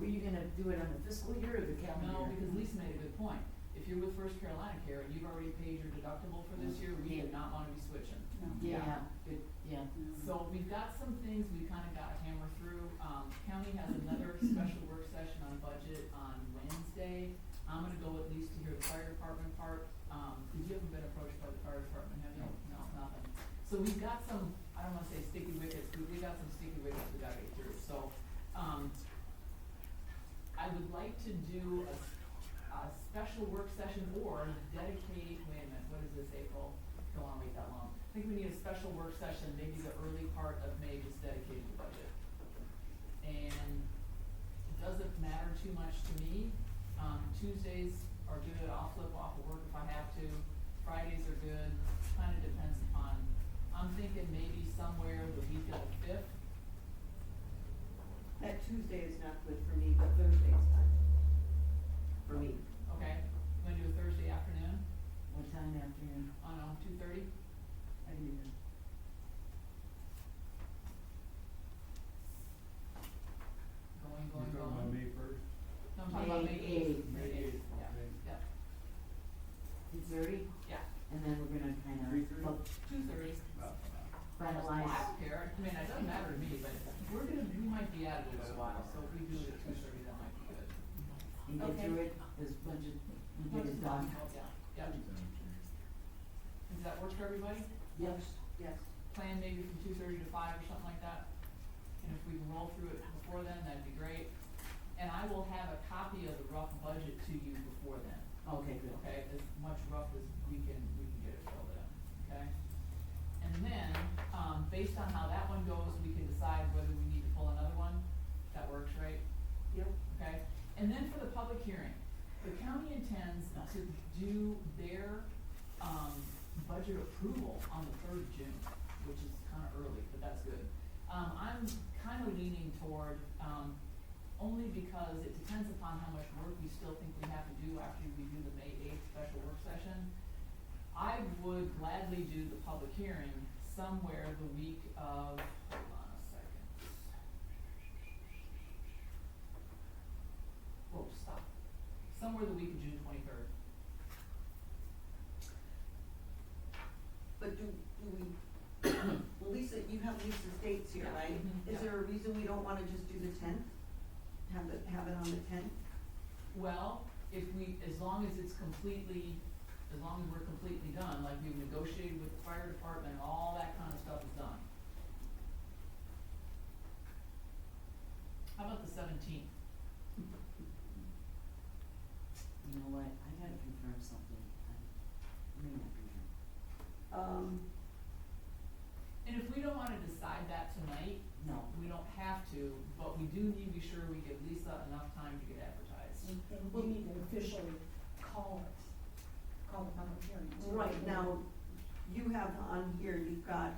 Were you gonna do it on the fiscal year or the No, calendar? year? because Lisa made a good point. If you're with First Carolina Care and you've already paid your deductible for this year, we do not wanna be switching. Yeah, It- yeah, So we've got some things we kinda gotta hammer through. Um, county has another special work session on budget on Wednesday. I'm gonna go at least to hear the fire department part, um, cause you haven't been approached by the fire department, have you? No, nothing. So we've got some, I don't wanna say sticky wickets, but we got some sticky wickets we gotta get through, so, um, I would like to do a, s- a special work session or dedicate, wait a minute, what is this, April? Don't wanna wait that long. I think we need a special work session, maybe the early part of May just dedicated to budget. And it doesn't matter too much to me. Um, Tuesdays are good, I'll flip off of work if I have to. Fridays are good, kinda depends upon, I'm thinking maybe somewhere the week of the fifth, That Tuesday is not good for me, but Thursday is fine. For me. okay? Wanna do a Thursday afternoon what time afternoon? on, um, two thirty? I do know. Going, You're going, talking about going. May first? No, I'm talking about May May eighth. eighth. May eighth, yeah, Okay. yeah, Two thirty, yeah, and then we're gonna Three kinda thirty? look, two thirty. Well, I finalize, don't care, I mean, it doesn't matter to me, but we're gonna, we might be out of it a while, so if we do it at two thirty, that might be good. and get Okay. through it, this budget, we get it done. Yeah, yeah, does that work for everybody? Yep, Yes. Plan maybe from two thirty to five or something like that, and if we can roll through it before then, that'd be great. And I will have a copy of the rough budget to you before then, okay, good. okay, as much rough as we can, we can get it filled in, okay? And then, um, based on how that one goes, we can decide whether we need to pull another one, that works, right? Yep. okay? And then for the public hearing, the county intends to do their, um, budget approval on the third of June, which is kinda early, but that's good. Um, I'm kinda leaning toward, um, only because it depends upon how much work we still think we have to do after we do the May eighth special work session. I would gladly do the public hearing somewhere the week of, hold on a second. Whoa, stop. Somewhere the week of June twenty-third. But do, do we, well, Lisa, you have Lisa's dates here, Yeah. right? Mhm. Is Yeah. there a reason we don't wanna just do the tenth? Have it, have it on the tenth? Well, if we, as long as it's completely, as long as we're completely done, like we've negotiated with the fire department, all that kind of stuff is done. How about the seventeenth? You know what, I gotta confirm something, I may not be here. Um, And if we don't wanna decide that tonight, No, we don't have to, but we do need to be sure we give Lisa enough time to get advertised. And we Mm. need to officially call it, call the public hearing. right now, you have on here, you've got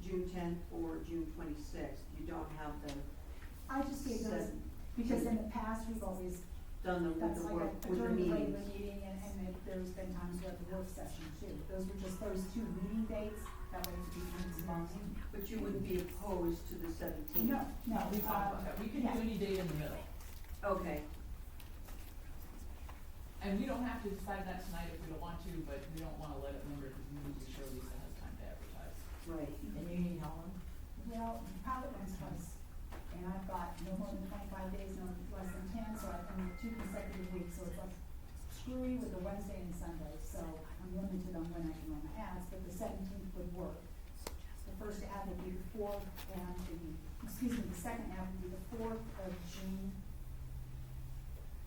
June tenth or June twenty-sixth. You don't have the, I just gave those, Said- because in the past, we've always, done the, with that's the like work, a- with the during the regular meetings. meeting, and, and it- there's been times with the work session too. Those were just those two meeting dates, that way it becomes long. But you wouldn't be opposed to the seventeenth? No, no, we Uh, thought, okay, we can do yeah. any day in the middle. Okay, And we don't have to decide that tonight if we don't want to, but we don't wanna let it linger, cause we need to be sure Lisa has time to advertise. right. and you need Helen? well, probably once twice. And I've got no more than twenty-five days, no less than ten, so I can do two consecutive weeks, so it's like screwy with the Wednesday and Sunday, so I'm limited on when I can run my ads, but the seventeenth would work. The first ad would be the fourth, and the, excuse me, the second ad would be the fourth of June.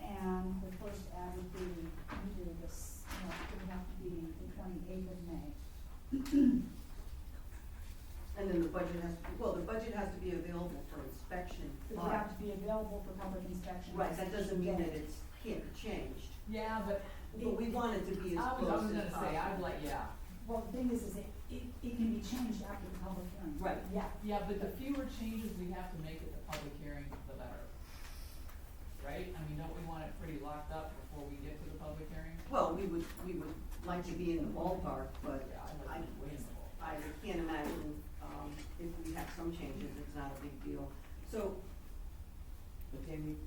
And the first ad would be, we do this, no, it would have to be the twenty-eighth of May. And then the budget has, to well, the budget has to be available for inspection, It would have but, to be available for public inspection. right, that doesn't mean that Yeah. it's, can't be changed. Yeah, but But we want it to be as I was, I close was as gonna say, I'd possible. like, yeah, Well, the thing is, is it, it, it can be changed after the public hearing. Right. Yeah, yeah, but the fewer changes we have to make at the public hearing, the better. Right? I mean, don't we want it pretty locked up before we get to the public hearing? Well, we would, we would like to be in the ballpark, but Yeah, I'd I, like to be reasonable. I can't imagine, um, if we have some changes, it's not a big deal. So, But then we